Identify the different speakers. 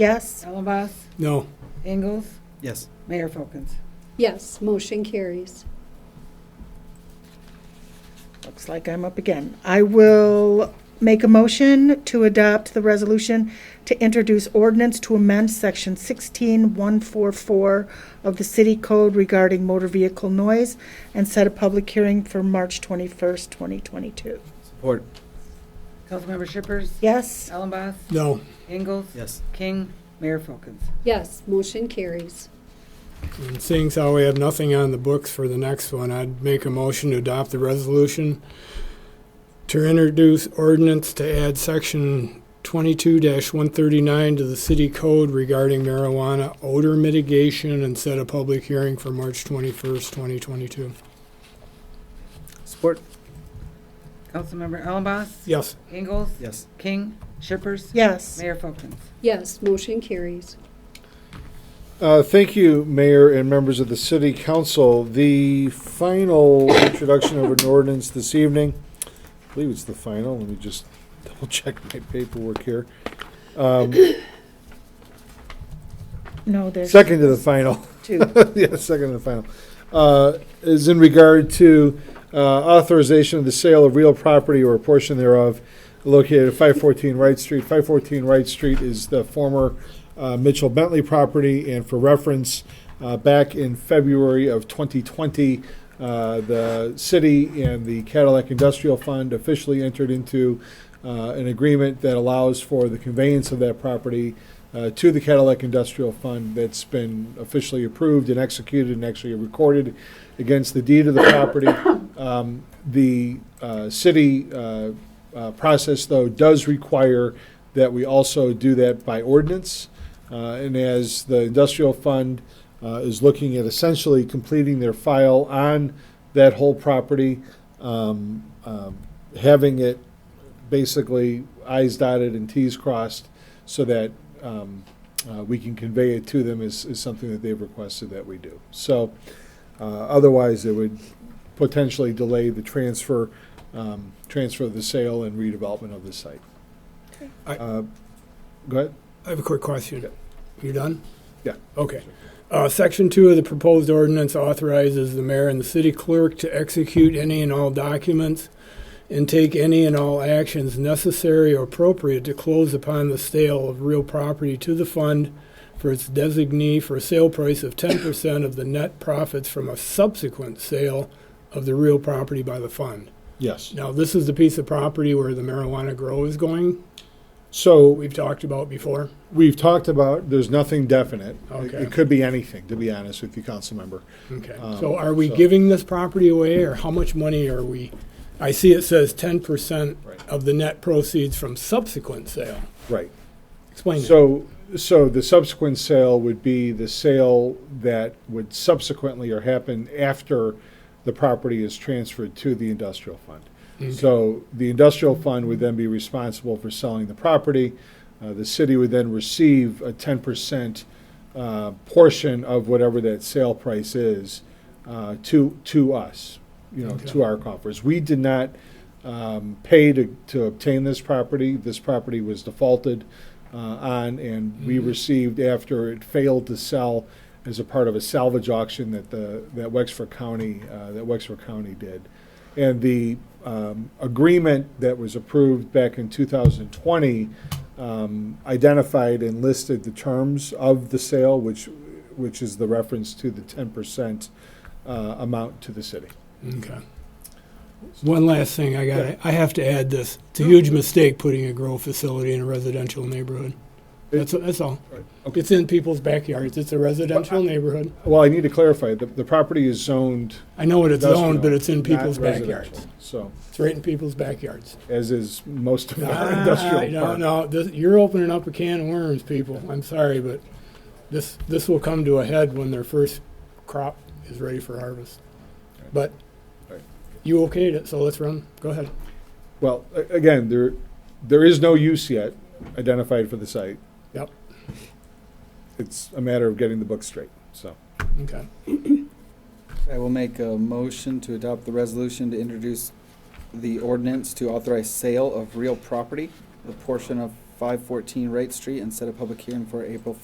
Speaker 1: Yes.
Speaker 2: Allenboss,
Speaker 3: No.
Speaker 2: Ingalls,
Speaker 4: Yes.
Speaker 2: Mayor Folkins.
Speaker 5: Yes, motion carries.
Speaker 1: Looks like I'm up again. I will make a motion to adopt the resolution to introduce ordinance to amend section 16144 of the city code regarding motor vehicle noise and set a public hearing for March 21st, 2022.
Speaker 4: Support.
Speaker 2: Councilmember Shippers.
Speaker 1: Yes?
Speaker 2: Allenboss,
Speaker 3: No.
Speaker 2: Ingalls.
Speaker 4: Yes.
Speaker 2: King, Mayor Folkins.
Speaker 5: Yes, motion carries.
Speaker 3: And seeing as how we have nothing on the books for the next one, I'd make a motion to adopt the resolution to introduce ordinance to add section twenty-two one thirty-nine to the city code regarding marijuana odor mitigation and set a public hearing for March twenty-first, twenty twenty-two.
Speaker 4: Support.
Speaker 2: Councilmember Allenboss,
Speaker 3: Yes.
Speaker 2: Ingalls,
Speaker 4: Yes.
Speaker 2: King, Shippers.
Speaker 1: Yes.
Speaker 2: Mayor Folkins.
Speaker 5: Yes, motion carries.
Speaker 6: Uh, Thank you, Mayor and members of the City Council. The final introduction of an ordinance this evening, I believe it's the final, let me just double check my paperwork here. Um,
Speaker 1: No, there's
Speaker 6: Second to the final.
Speaker 1: two.
Speaker 6: yeah, second and final. Uh, is in regard to uh, authorization of the sale of real property or a portion thereof located at 514 Wright Street. 514 Wright Street is the former uh, Mitchell Bentley property, and for reference, uh, back in February of 2020, uh, the city and the Cadillac Industrial Fund officially entered into uh, an agreement that allows for the conveyance of that property uh, to the Cadillac Industrial Fund that's been officially approved and executed and actually recorded against the deed of the property. Um, The uh, city uh, uh, process, though, does require that we also do that by ordinance. Uh, And as the industrial fund uh, is looking at essentially completing their file on that whole property, um, um, having it basically i's dotted and t's crossed so that um, uh, we can convey it to them is, is something that they've requested that we do. So uh, otherwise, it would potentially delay the transfer, um, transfer of the sale and redevelopment of the site.
Speaker 3: I-
Speaker 6: Uh, Go ahead.
Speaker 3: I have a quick question. You done?
Speaker 6: Yeah.
Speaker 3: Okay. Uh, Section two of the proposed ordinance authorizes the mayor and the city clerk to execute any and all documents and take any and all actions necessary or appropriate to close upon the sale of real property to the fund for its designee for a sale price of ten percent of the net profits from a subsequent sale of the real property by the fund.
Speaker 6: Yes.
Speaker 3: Now, this is the piece of property where the marijuana grow is going,
Speaker 6: So
Speaker 3: we've talked about before.
Speaker 6: we've talked about, there's nothing definite. It-
Speaker 3: Okay.
Speaker 6: It could be anything, to be honest with you, council member.
Speaker 3: Okay,
Speaker 6: Um,
Speaker 3: so are we
Speaker 6: so-
Speaker 3: giving this property away, or how much money are we? I see it says ten percent
Speaker 6: Right.
Speaker 3: of the net proceeds from subsequent sale.
Speaker 6: Right.
Speaker 3: Explain that.
Speaker 6: So, so the subsequent sale would be the sale that would subsequently or happen after the property is transferred to the industrial fund. So the industrial fund would then be responsible for selling the property. Uh, The city would then receive a ten percent uh, portion of whatever that sale price is uh, to, to us, you know, to our coffers. We did not um, pay to, to obtain this property. This property was defaulted uh, on, and
Speaker 3: Mm-hmm.
Speaker 6: we received after it failed to sell as a part of a salvage auction that the, that Wexford County, uh, that Wexford County did. And the um, agreement that was approved back in 2020 um, identified and listed the terms of the sale, which, which is the reference to the 10% uh, amount to the city.
Speaker 3: Okay. One last thing, I got, I have to add this. It's a huge mistake putting a grow facility in a residential neighborhood. That's, that's all.
Speaker 6: Okay.
Speaker 3: It's in people's backyards. It's a residential neighborhood.
Speaker 6: Well, I need to clarify, the, the property is zoned
Speaker 3: I know what it's owned,
Speaker 6: industrial,
Speaker 3: but it's in
Speaker 6: not
Speaker 3: people's
Speaker 6: residential.
Speaker 3: backyards.
Speaker 6: So,
Speaker 3: It's right in people's backyards.
Speaker 6: as is most of our
Speaker 3: Ah,
Speaker 6: industrial
Speaker 3: No,
Speaker 6: park.
Speaker 3: no, this- you're opening up a can of worms, people. I'm sorry, but this, this will come to a head when their first crop is ready for harvest. But
Speaker 6: Right.
Speaker 3: you okayed it, so let's run. Go ahead.
Speaker 6: Well, a- again, there, there is no use yet identified for the site.
Speaker 3: Yep.
Speaker 6: It's a matter of getting the book straight, so.
Speaker 3: Okay.
Speaker 4: I will make a motion to adopt the resolution to introduce the ordinance to authorize sale of real property, the portion of 514 Wright Street and set a public hearing for April